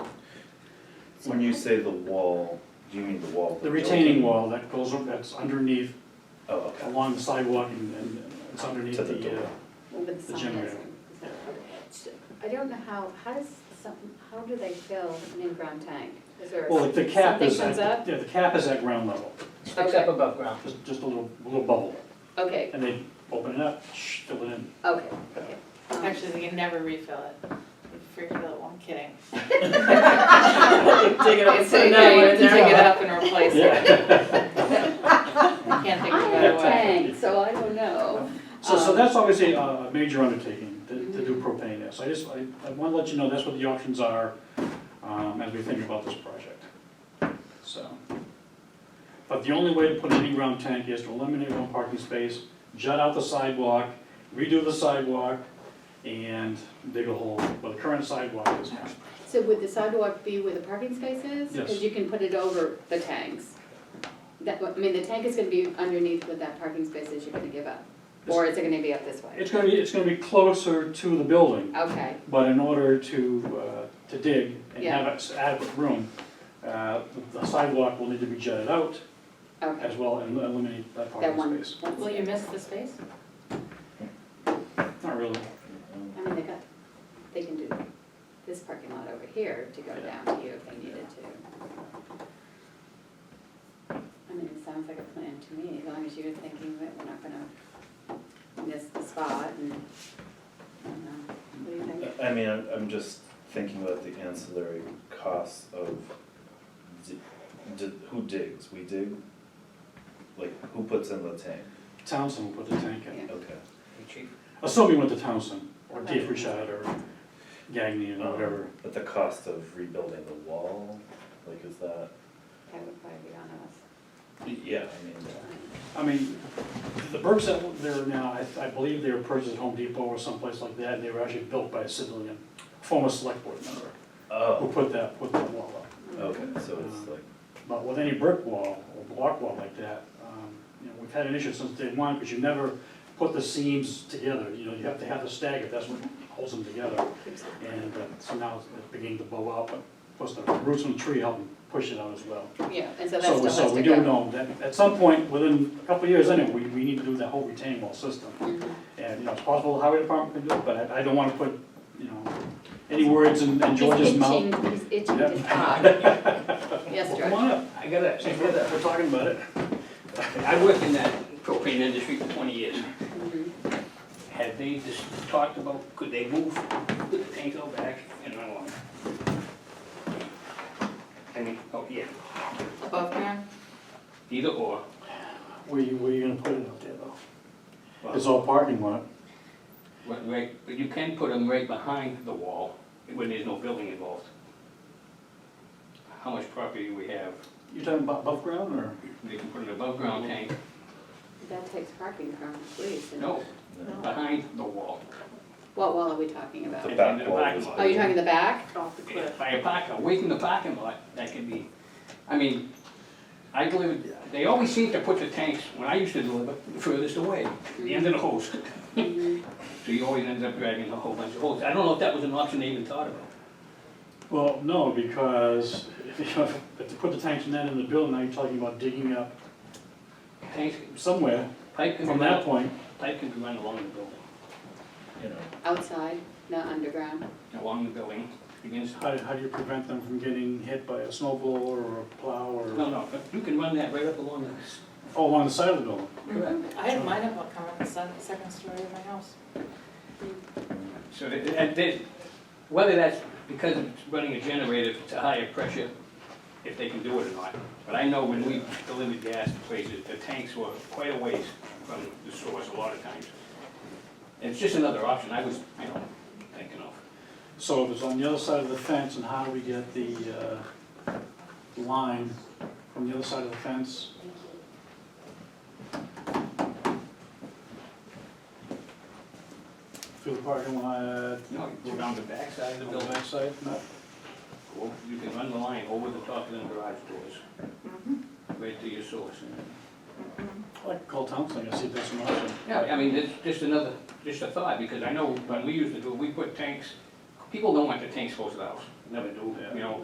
When you say the wall, do you mean the wall? of The building? retaining wall that goes, up- that's underneath, Oh, okay. along the sidewalk and, and it's underneath To the, the door. uh, Well, but The some generator. doesn't, so. So, I don't know how, how does some, how do they fill an in-ground tank? Is there, well, the cap something is comes at, up? yeah, the cap is at ground level, Sticks up above ground. just, just a little, little bubble. Okay, And they open it up, shh, fill it in. okay, okay. Um, Actually, they can never refill it. Freaking, no, I'm kidding. Dig it up, It's put okay, another one you in can dig it there. up and replace it. Yeah. I can't I think of a have better a way. tank, so I don't know. So, so Um, that's obviously a, a major undertaking to, to do propane there. So I just, I, I wanna let you know that's what the options are, um, as we think about this project, so. But the only way to put an in-ground tank is to eliminate one parking space, jut out the sidewalk, redo the sidewalk, and dig a hole, Well, the current sidewalk is. So would the sidewalk be where the parking space is? Yes. Because you can put it over the tanks. That, I mean, the tank is gonna be underneath with that parking space that you're gonna give up? Or is it gonna be up this way? It's gonna be, it's gonna be closer to the building, Okay, But in order to, uh, to dig and Yeah. have us adequate room, uh, the sidewalk will need to be jutted out okay. as well and eliminate that That parking one. space. one- Will you miss the space? Not really. I mean, they got, they can do this parking lot over here to go Yeah. down to you if they needed to. I mean, it sounds like a plan to me, as long as you're thinking that we're not gonna miss the spot and, I don't know, what do you think? I mean, I'm, I'm just thinking about the ancillary costs of, di- di- who digs? We dig? Like, who puts in the tank? Townsend will put the tank in, Yeah. Okay. assuming we went to Townsend or Okay. Dave Richard or Gagnon Uh-huh. or whatever. Um, But the cost of rebuilding the wall, like, is that, That would probably be on us. yeah, I mean, I mean, the Burks that were there now, I, I believe they were purchased at Home Depot or someplace like that and they were actually built by a civilian, former select board member, who oh, put that, put that wall up. okay, so it's like, But with any brick wall or block wall like that, um, you know, we've had an issue since day one, because you never put the seams together, you know, you have to have the stagger, that's what holds them together. And uh, so now it's beginning to bow out, but plus the roots from the tree help them push it out as well. Yeah, and so that So, still we- has to go. so we do know that at some point, within a couple of years anyway, we, we need to do that whole retaining wall system. Mhm. And, you know, it's possible the highway department can do it, but I, I don't wanna put, you know, any words in in George's mouth. He's itching, he's itching Yeah. to talk. Yes, Well, George. Come on up, I gotta, I we're gotta, we're talking about it. I worked in that propane industry for twenty years. Mhm. Had they just talked about, could they move, could the tank go back and along? I mean, oh, yeah, Above ground? either or. Where you, where you gonna put it up there though? Well, It's all parking lot. Right, right, but you can put them right behind the wall when there's no building involved. How much property we have, You're talking about above ground or? they can put an above ground tank, That takes parking from the police. and- no, no. behind the wall. What wall are we talking about? the back wall is. Oh, you're talking the back? Off the cliff. by a park, away from the parking lot, that could be, I mean, I believe, they always seem to put the tanks, when I used to deliver, furthest away, the end of the hose. Mhm. So you always ended up dragging a whole bunch of hoses. I don't know if that was an option they even thought about. Well, no, because if you, if you put the tanks in that in the building, now you're talking about digging up Tanks, somewhere pipe can be from that run, point. pipe can be run along the building, You know, Outside, not underground? along the building, against, How, how do you prevent them from getting hit by a snow blower or a plow no, or, no, but you can run that right up along the, oh, along the side of the building? correct? Mm-hmm. I had mine up, I'll come up the second, second story of my house. So that- that, that, whether that's because it's running a generator to higher pressure, if they can do it or not. But I know when we delivered gas to places, the tanks were quite a ways from the source a lot of times. It's just another option I was, you know, thinking of. So if it's on the other side of the fence, and how do we get the, uh, line from the other side of the fence? Through the parking lot, You know, you go down the backside of the on the building, backside, no? or you can run the line over the top of the garage doors, right to your source. I'd like to call Townsend and see if that's an option. Yeah, I mean, it's just another, just a thought, because I know when we used to do, it, we put tanks, people don't want the tanks close to the house, never do, you know,